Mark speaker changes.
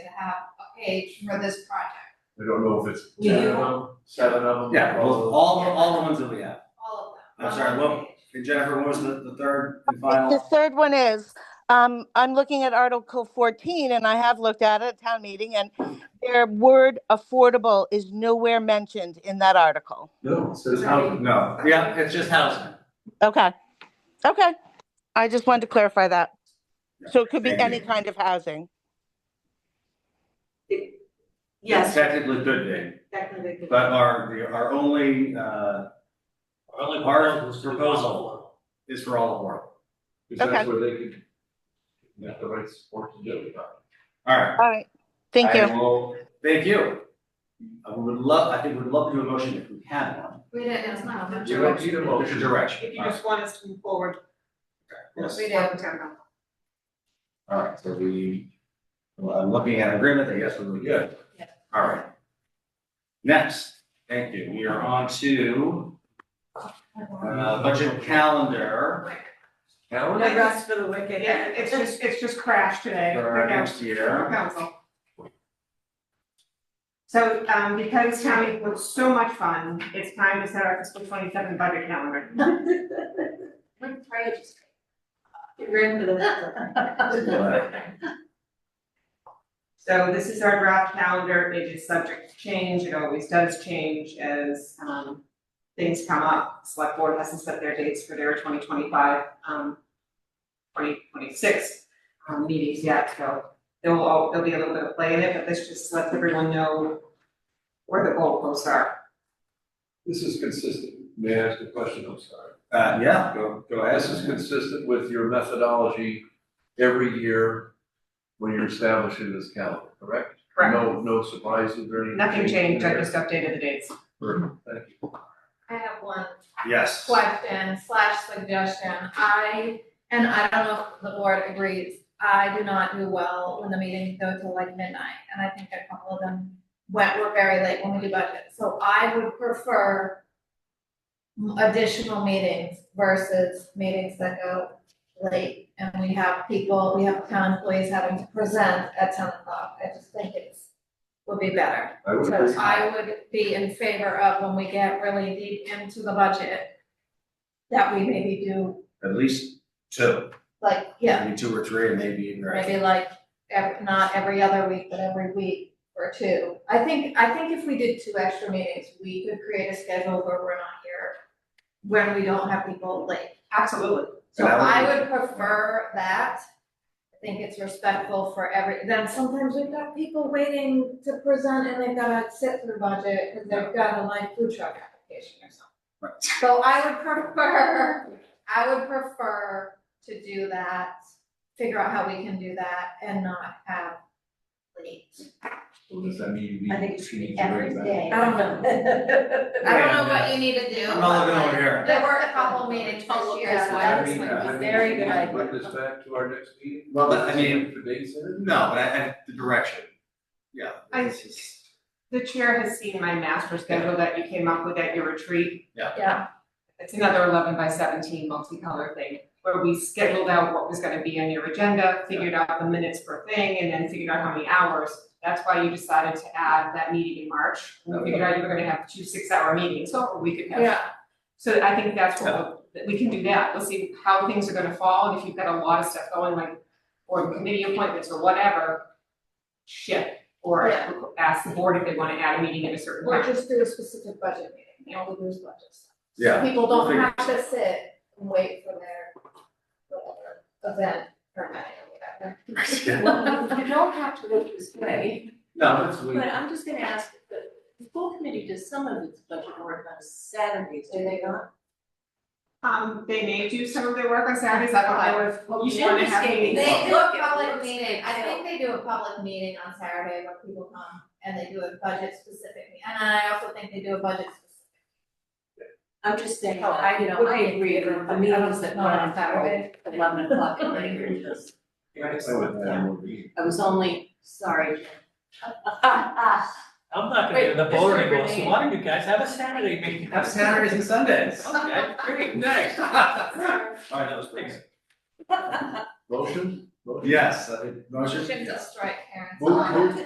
Speaker 1: to have a page for this project,
Speaker 2: I don't know if it's
Speaker 1: We
Speaker 2: ten
Speaker 1: do-
Speaker 2: of them, seven of them.
Speaker 3: Yeah, well, all, all the ones that we have.
Speaker 1: all of them.
Speaker 3: I'm
Speaker 1: on
Speaker 3: sorry,
Speaker 1: one
Speaker 3: what-
Speaker 1: page.
Speaker 3: And Jennifer, what was the, the third and
Speaker 4: The
Speaker 3: final?
Speaker 4: third one is, um, I'm looking at Article fourteen, and I have looked at it at town meeting, and their word affordable is nowhere mentioned in that article.
Speaker 2: No, it says how,
Speaker 3: No, yeah, it's just housing.
Speaker 4: Okay, okay. I just wanted to clarify that. So it could be
Speaker 3: Thank you.
Speaker 4: any kind of housing.
Speaker 5: Yes,
Speaker 3: Technically could be,
Speaker 5: technically. could-
Speaker 3: but our, the- our only, uh,
Speaker 6: Our only
Speaker 3: Our
Speaker 6: proposal is for
Speaker 3: proposal. is for all of Warren.
Speaker 2: is that
Speaker 4: Okay.
Speaker 2: where they could get the right support to do it.
Speaker 3: All right.
Speaker 4: All right, thank you.
Speaker 3: I will- Thank you. I would love, I think we'd love to do a motion if we had one.
Speaker 1: We didn't, it's not a
Speaker 2: You don't need a
Speaker 3: Motion
Speaker 2: motion.
Speaker 3: direction.
Speaker 5: If you just want us to move forward.
Speaker 3: Yes.
Speaker 1: We
Speaker 5: Yeah,
Speaker 1: did.
Speaker 5: we can.
Speaker 3: All right, so we, well, I'm looking at agreement, I guess we're good.
Speaker 1: Yeah.
Speaker 3: All right. Next, thank you, we are on to uh, budget calendar Uh,
Speaker 2: Now,
Speaker 5: The rest for the wicked.
Speaker 7: Yeah, it's just, it's just crashed today.
Speaker 3: for our
Speaker 7: Okay.
Speaker 3: next year.
Speaker 7: Council. So, um, because town meeting was so much fun, it's time to set our fiscal twenty-seven budget calendar.
Speaker 1: We're trying to just-
Speaker 5: Get rid of
Speaker 3: But
Speaker 7: So this is our draft calendar, it is subject to change, it always does change as, um, things come up. Select board hasn't set their dates for their twenty twenty-five, um, twenty twenty-six, um, meetings yet, so there will, al- there'll be a little bit of play in it, but this just lets everyone know where the goalposts are.
Speaker 2: This is consistent, may I ask a question, I'm sorry?
Speaker 3: Uh, yeah, go, go ahead.
Speaker 2: This is consistent with your methodology every year when you're establishing this calendar, correct?
Speaker 7: Correct.
Speaker 2: No, no surprises or anything?
Speaker 7: Nothing changed, I just updated the dates.
Speaker 2: Perfect, thank you.
Speaker 1: I have one
Speaker 3: Yes.
Speaker 1: question slash suggestion. I, and I don't know if the board agrees, I do not do well when the meetings go till like midnight, and I think a couple of them went, were very late when we do budget. So I would prefer additional meetings versus meetings that go late, and we have people, we have town employees having to present at ten o'clock. I just think it's, would be better.
Speaker 2: I would
Speaker 1: So
Speaker 2: agree.
Speaker 1: I would be in favor of when we get really deep into the budget, that we maybe do,
Speaker 3: At least two,
Speaker 1: like, yeah,
Speaker 3: maybe two or three, and maybe even.
Speaker 1: maybe like, ev- not every other week, but every week or two. I think, I think if we did two extra meetings, we could create a schedule where we're not here, when we don't have people late.
Speaker 7: Absolutely.
Speaker 1: So
Speaker 3: And
Speaker 1: I
Speaker 3: I would-
Speaker 1: would prefer that. I think it's respectful for every, then sometimes we've got people waiting to present and they've gotta sit through budget because they've got a like food truck application or something.
Speaker 3: Right.
Speaker 1: So I would prefer, I would prefer to do that, figure out how we can do that and not have late.
Speaker 2: So does that mean you
Speaker 5: I think
Speaker 2: need
Speaker 5: it
Speaker 2: to change the
Speaker 1: Every
Speaker 2: rate back?
Speaker 1: day.
Speaker 5: I don't know.
Speaker 1: I don't know what you need to do.
Speaker 3: I'm not looking over here.
Speaker 1: but There were a couple meetings this year, so I
Speaker 5: That
Speaker 2: I
Speaker 1: was
Speaker 5: is
Speaker 2: mean,
Speaker 1: like,
Speaker 5: a
Speaker 2: I mean,
Speaker 5: very
Speaker 2: we
Speaker 5: good
Speaker 2: can
Speaker 5: idea.
Speaker 2: Put this back to our next meeting?
Speaker 3: Well, but I mean-
Speaker 2: For dates in it?
Speaker 3: No, but I, I, the direction. Yeah.
Speaker 7: I- The chair has seen my master schedule that you came up with at your retreat.
Speaker 1: yeah,
Speaker 7: It's another eleven by seventeen multicolor thing, where we scheduled out what was gonna be on your agenda, figured out the minutes per thing, and then figured out how many hours. That's why you decided to add that meeting in March. We figured out you were gonna have two six-hour meetings, or we could have.
Speaker 1: yeah.
Speaker 7: So I think that's what, we'll- that we can do that. Let's see how things are gonna fall, and if you've got a lot of stuff going, like, or committee appointments or whatever, shift, or
Speaker 1: Yeah.
Speaker 7: ask the board if they wanna add a meeting at a certain
Speaker 1: Or
Speaker 7: time.
Speaker 1: just do a specific budget meeting, all the news budget stuff. So
Speaker 3: Yeah,
Speaker 1: People
Speaker 3: we'll
Speaker 1: don't
Speaker 3: figure-
Speaker 1: have to sit and wait for their whatever event or night or
Speaker 3: Yeah.
Speaker 5: Well, you don't have to look this way,
Speaker 3: No, that's, we,
Speaker 5: but I'm just gonna ask, the, the full committee does some of its budget work on Saturdays, do they not?
Speaker 7: Um, they may do some of their work on Saturdays, I don't know if, well, you wanna have
Speaker 5: They
Speaker 7: meetings.
Speaker 1: They do a
Speaker 5: look at
Speaker 1: public
Speaker 5: what's-
Speaker 1: meeting, I think they do a public meeting on Saturday where people come and they do a budget specific, meeting. and I also think they do a budget specific.
Speaker 5: I'm just saying,
Speaker 1: Oh, I-
Speaker 5: that, you know,
Speaker 1: would
Speaker 5: I
Speaker 1: be
Speaker 5: agree
Speaker 1: in
Speaker 5: with
Speaker 1: favor
Speaker 5: the
Speaker 1: of-
Speaker 5: meetings that
Speaker 1: not
Speaker 5: run
Speaker 1: on
Speaker 5: on Saturday,
Speaker 1: Saturday.
Speaker 5: eleven o'clock and later, because
Speaker 2: I would have more meetings.
Speaker 5: I was only, sorry.
Speaker 6: I'm not gonna
Speaker 5: Wait,
Speaker 6: do the
Speaker 5: this is
Speaker 6: boring
Speaker 5: your
Speaker 6: one, so
Speaker 5: name.
Speaker 6: why don't you guys have a Saturday meeting?
Speaker 3: have Saturdays and Sundays.
Speaker 1: Oh,
Speaker 6: Okay, great,
Speaker 3: Nice. All right, that was great.
Speaker 2: Motion? Motion?
Speaker 3: Yes, I- motion?
Speaker 1: Shouldn't just strike Karen's.
Speaker 3: Move-
Speaker 1: comment.
Speaker 3: move-